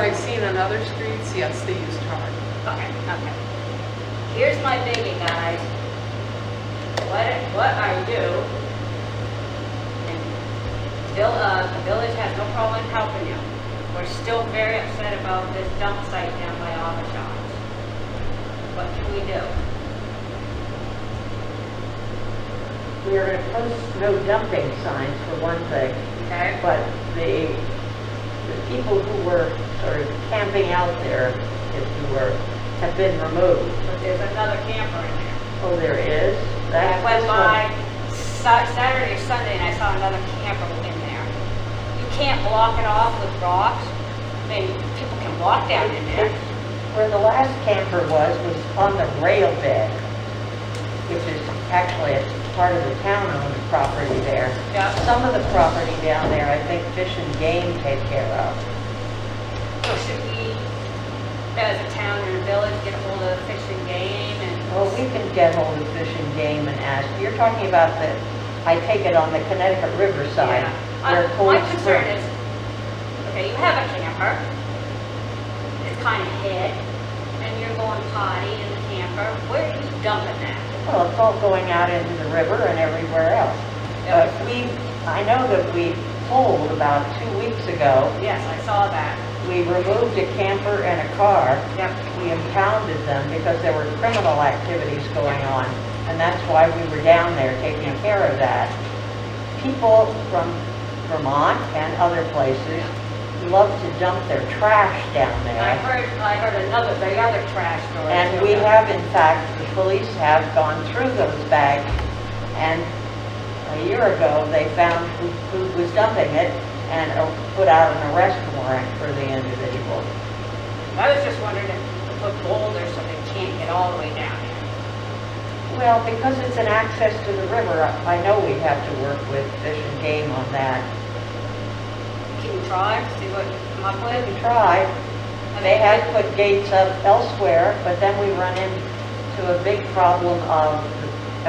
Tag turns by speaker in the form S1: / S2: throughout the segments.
S1: I've seen on other streets, yes, they use tar.
S2: Okay, okay. Here's my thinking, guys. What, what I do, and Bill, uh, the village has no problem helping you. We're still very upset about this dump site down by auto shops. What can we do?
S3: We are gonna post no dumping signs for one thing,
S2: Okay?
S3: but the, the people who were sort of camping out there, if you were, have been removed.
S2: But there's another camper in there.
S3: Oh, there is?
S2: I
S3: That's
S2: went
S3: this
S2: by
S3: one.
S2: Sa- Saturday or Sunday and I saw another camper in there. You can't block it off with rocks. I mean, people can walk down in there.
S3: Where the last camper was, was on the rail bed, which is actually a part of the town-owned property there. Uh,
S2: Yeah.
S3: Some of the property down there, I think Fish and Game take care of.
S2: So should we, as a town and a village, get a hold of Fish and Game and?
S3: Well, Oh, we can get hold of Fish and Game and ask, you're talking about the, I take it on the Connecticut River side.
S2: Yeah.
S3: where
S2: Uh,
S3: Cold
S2: My concern
S3: Spring-
S2: is, okay, you have a camper, it's kind of hid, and you're going potty in the camper, where are you dumping that?
S3: Well, it's all going out into the river and everywhere else.
S2: Yeah.
S3: But we, I know that we pulled about two weeks ago,
S2: Yes, I saw that.
S3: we removed a camper and a car.
S2: Yep.
S3: We impounded them because there were criminal activities going on, and that's why we were down there taking care of that. People from Vermont and other places love to dump their trash down
S2: I
S3: there.
S2: heard, I heard another, the other trash story.
S3: And
S2: too.
S3: we have, in fact, the police have gone through those bags, and a year ago, they found who who was dumping it and uh, put out an arrest warrant for the individual.
S2: I was just wondering if you put boulders so they can't get all the way down.
S3: Well, because it's an access to the river, I know we have to work with Fish and Game on that.
S2: Can you try, see what you come up with?
S3: We tried,
S2: I
S3: they
S2: mean,
S3: had put gates up elsewhere, but then we run into a big problem of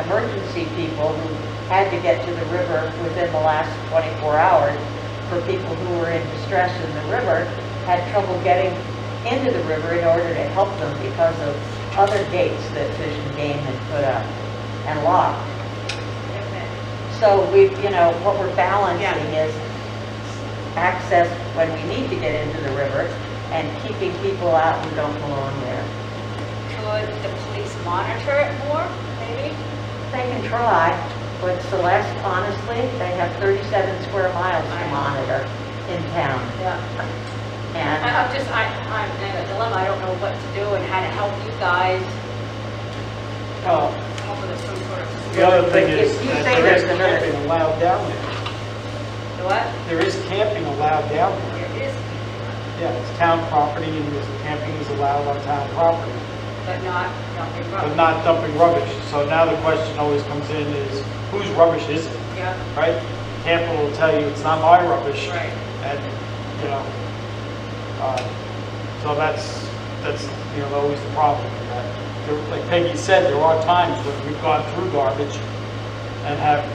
S3: emergency people who had to get to the river within the last 24 hours, for people who were in distress in the river, had trouble getting into the river in order to help them because of other gates that Fish and Game had put up and locked. So we, you know, what we're balancing is access when we need to get into the river and keeping people out who don't belong there.
S2: Could the police monitor it more, maybe?
S3: They can try, but Celeste, honestly, they have 37 square miles to monitor in town.
S2: Yeah. I-
S3: And
S2: I'm just, I, I'm in a dilemma, I don't know what to do and how to help you guys
S3: oh,
S2: come up with some sort of.
S4: Uh, The other thing is,
S3: If you
S4: that
S3: say
S4: there is
S3: there's another-
S4: camping allowed down there.
S2: What?
S4: There is camping allowed down there.
S2: There is,
S4: Yeah, it's town property, and there's, camping is allowed on town property,
S2: but not dumping
S4: but
S2: rubbish.
S4: not dumping rubbish. So now the question always comes in is, whose rubbish is it,
S2: Yeah,
S4: right? Campbell will tell you, it's not my rubbish.
S2: right.
S4: And, you know, uh, so that's, that's, you know, always the problem. with that. There- Like Peggy said, there are times when we've gone through garbage and have,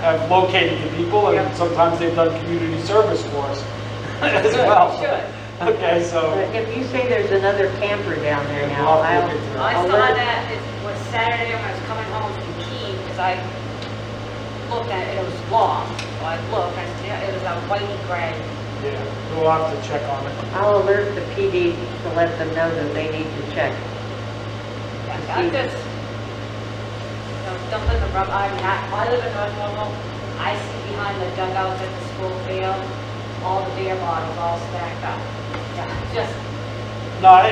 S4: have located the people,
S2: Yeah.
S4: and sometimes they've done community service for us as well.
S2: Should.
S4: Okay, so,
S3: but if you say there's another camper down there
S4: Yeah,
S3: now,
S4: we'll have
S3: I'll...
S4: to look into
S2: I
S3: I'll
S2: saw
S3: let-
S2: that, it was Saturday when I was coming home from Keene, because I looked at it, it was long, so I looked, I said, yeah, it was a whitey gray.
S4: yeah, we'll have to check on it.
S3: I'll alert the PD to let them know that they need to check.
S2: Yeah, I'm just, you know, dumping the rub, I'm not, I live in North Normal, I see behind the dugouts at the school field, all the beer bottles all stacked up. Yeah, Just,
S4: No, I,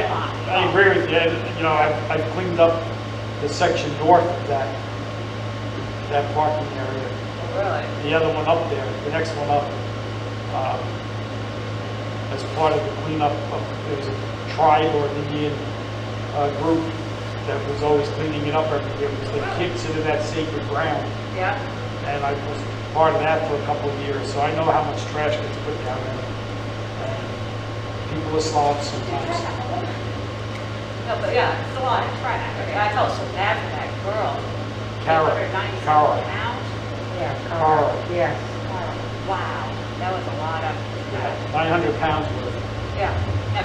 S4: I agree with you, and, you know, I've, I've cleaned up the section north of that, that parking area.
S2: really,
S4: the other one up there, the next one up, um, as part of the cleanup, of- there was a tribe or an Indian uh, group that was always cleaning it up every year, because they consider that sacred ground,
S2: yeah,
S4: and I was part of that for a couple of years, so I know how much trash gets put down there. And People are slobs sometimes.
S2: no, but yeah, it's a lot of trash, I mean, I felt so bad for that girl.
S4: Carol,
S2: 897
S4: Carol.
S2: pounds.
S3: Yeah,
S4: Carl.
S3: Uh, Yes.
S2: Wow, that was a lot of,
S4: Nine hundred pounds worth.
S2: yeah.